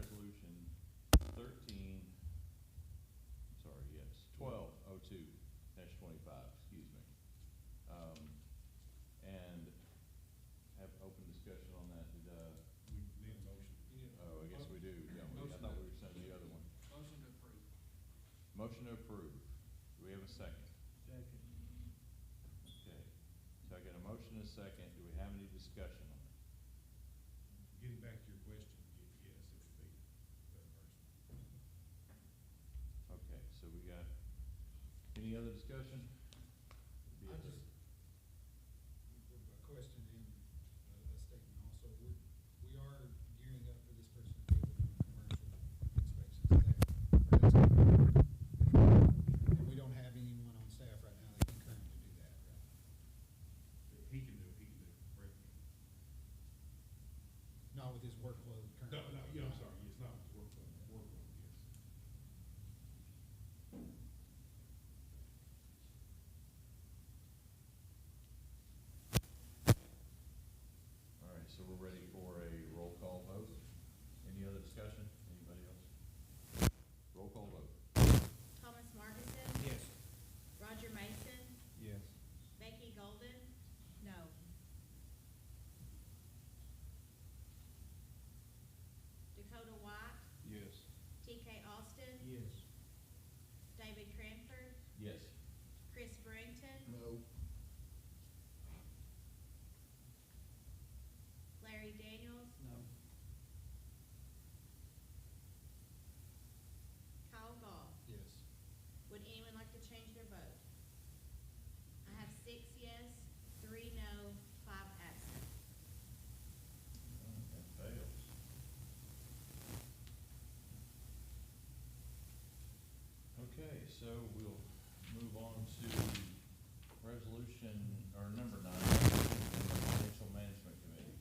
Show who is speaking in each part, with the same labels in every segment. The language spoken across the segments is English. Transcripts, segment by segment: Speaker 1: oh Um, uh, oh, motion to approve. Do we have a second?
Speaker 2: Second.
Speaker 1: Okay. So I got a motion and a second. Do we have any discussion on it?
Speaker 3: Getting back to your question, y- yes, it would be reimbursement.
Speaker 1: Okay, so we got, any other discussion? Be
Speaker 3: I
Speaker 1: other-
Speaker 3: just, a question and a- a statement also, we're, we are gearing up for this person to be able to do commercial inspections. That- that's And we don't have anyone on staff right now that can currently do that, right?
Speaker 4: He can do, it. he can do. it. Brett can.
Speaker 3: Not with his workload currently.
Speaker 4: No, no, yeah, I'm sorry, it's not his workload, workload, yes.
Speaker 1: All right, so we're ready for a roll call vote. Any other discussion? Anybody else? Roll call vote.
Speaker 5: Thomas Markinson?
Speaker 3: Yes.
Speaker 5: Roger Mason?
Speaker 1: Yes.
Speaker 5: Becky Golden? No. Dakota White?
Speaker 1: Yes.
Speaker 5: TK Austin?
Speaker 2: Yes.
Speaker 5: David Cranford?
Speaker 1: Yes.
Speaker 5: Chris Brington?
Speaker 3: No.
Speaker 5: Larry Daniels?
Speaker 2: No.
Speaker 5: Kyle Gall?
Speaker 3: Yes.
Speaker 5: Would anyone like to change their vote? I have six yes, three no, five absent.
Speaker 1: That fails. Okay, so we'll move on to resolution, or number nine, Financial Management Committee.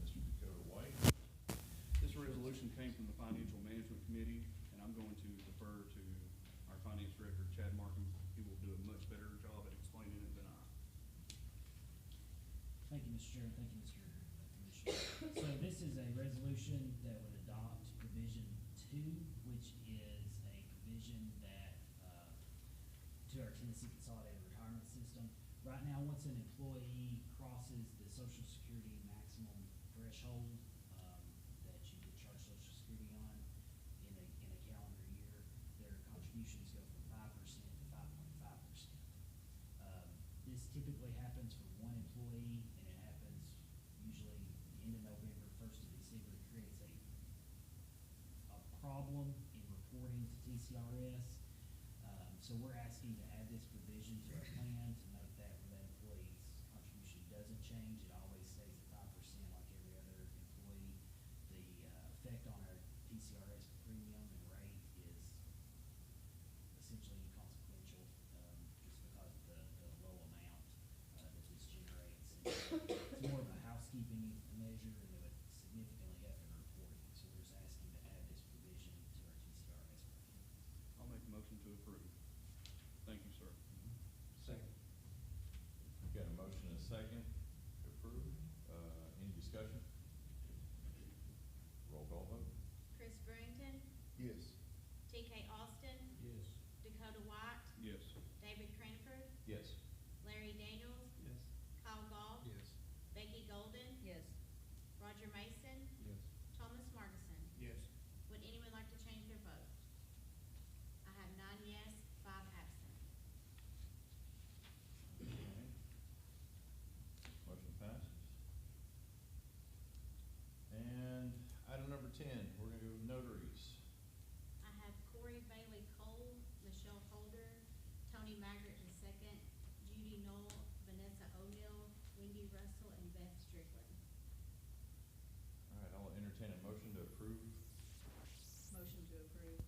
Speaker 1: Mr. Dakota White.
Speaker 6: This resolution came from the Financial Management Committee, and I'm going to defer to our Finance Director, Chad Markham. He will do a much better job at explaining it than I.
Speaker 7: Thank you, Mr. Chairman, thank you, Mr. Commissioner. So this is a resolution that would adopt provision two, which is a provision that, uh, to our Tennessee Consolidated Retirement System. Right now, once an employee crosses the social security maximum threshold, um, that you get charged social security on in a, in a calendar year, their contributions go from five percent to five point five percent. Um, This typically happens for one employee, and it happens usually the end of November, first of December. It creates a, a problem in reporting to TCRS. Um, So we're asking to add this provision to our plan to note that when that employee's contribution doesn't change, it always stays at five percent like every other employee. The uh, effect on our TCRS premium and rate is essentially inconsequential, um, just because of the, the low amount, uh, that this generates. It's more of a housekeeping measure and it would significantly affect reporting, so we're just asking to add this provision to our TCRS. plan.
Speaker 6: I'll make a motion to approve. Thank you, sir.
Speaker 3: Second.
Speaker 1: Got a motion and a second to approve. Uh, Any discussion? Roll call vote.
Speaker 5: Chris Brington?
Speaker 3: Yes.
Speaker 5: TK Austin?
Speaker 2: Yes.
Speaker 5: Dakota White?
Speaker 6: Yes.
Speaker 5: David Cranford?
Speaker 1: Yes.
Speaker 5: Larry Daniels?
Speaker 2: Yes.
Speaker 5: Kyle Gall?
Speaker 3: Yes.
Speaker 5: Becky Golden?
Speaker 8: Yes.
Speaker 5: Roger Mason?
Speaker 2: Yes.
Speaker 5: Thomas Markison?
Speaker 2: Yes.
Speaker 5: Would anyone like to change their vote? I have nine yes, five absent.
Speaker 1: Okay. Motion passes. And item number ten, we're gonna go with notaries.
Speaker 5: I have Corey Bailey Cole, Michelle Holder, Tony Maggart in second, Judy Knoll, Vanessa O'Neill, Wendy Russell, and Beth Strickland.
Speaker 1: All right, I'll entertain a motion to approve.
Speaker 8: Motion to approve.